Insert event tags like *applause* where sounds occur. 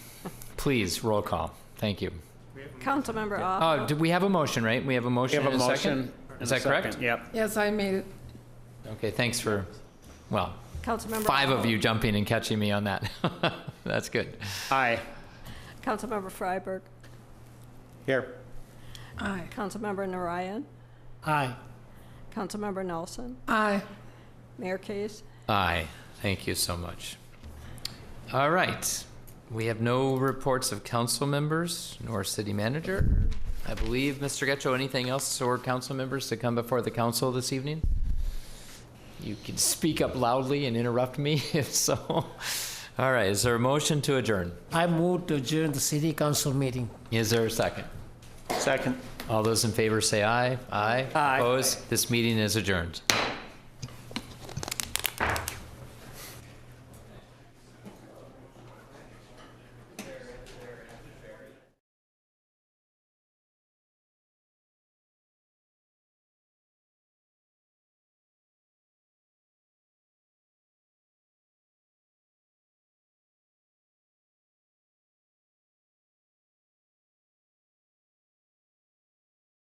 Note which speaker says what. Speaker 1: Please, roll call. Thank you.
Speaker 2: Councilmember Off.
Speaker 1: Oh, do we have a motion, right? We have a
Speaker 3: We
Speaker 1: motion
Speaker 3: have
Speaker 1: and
Speaker 3: a
Speaker 1: a
Speaker 3: motion.
Speaker 1: second?
Speaker 3: and
Speaker 1: Is
Speaker 3: a
Speaker 1: that correct?
Speaker 3: second. Yep.
Speaker 4: Yes, I made it.
Speaker 1: Okay, thanks for, well,
Speaker 2: Councilmember.
Speaker 1: Uh, five
Speaker 2: Au.
Speaker 1: of you jumping and catching me on that. *laughs* That's good.
Speaker 3: Aye.
Speaker 2: Councilmember Freiberg.
Speaker 3: Here.
Speaker 4: Aye.
Speaker 2: Councilmember Narayan.
Speaker 3: Aye.
Speaker 2: Councilmember Nelson.
Speaker 4: Aye.
Speaker 2: Mayor Case.
Speaker 1: Aye, thank you so much. All right, we have no reports of council members nor city manager. I believe, Mr. Getchell, anything else or council members to come before the council this evening? You can speak up loudly and interrupt me *laughs* if so. All right, is there a motion to adjourn?
Speaker 5: I move to adjourn the city council meeting.
Speaker 1: Is there a second?
Speaker 3: Second.
Speaker 1: All those in favor say aye. Aye.
Speaker 3: Aye.
Speaker 1: Opposed? This meeting is adjourned.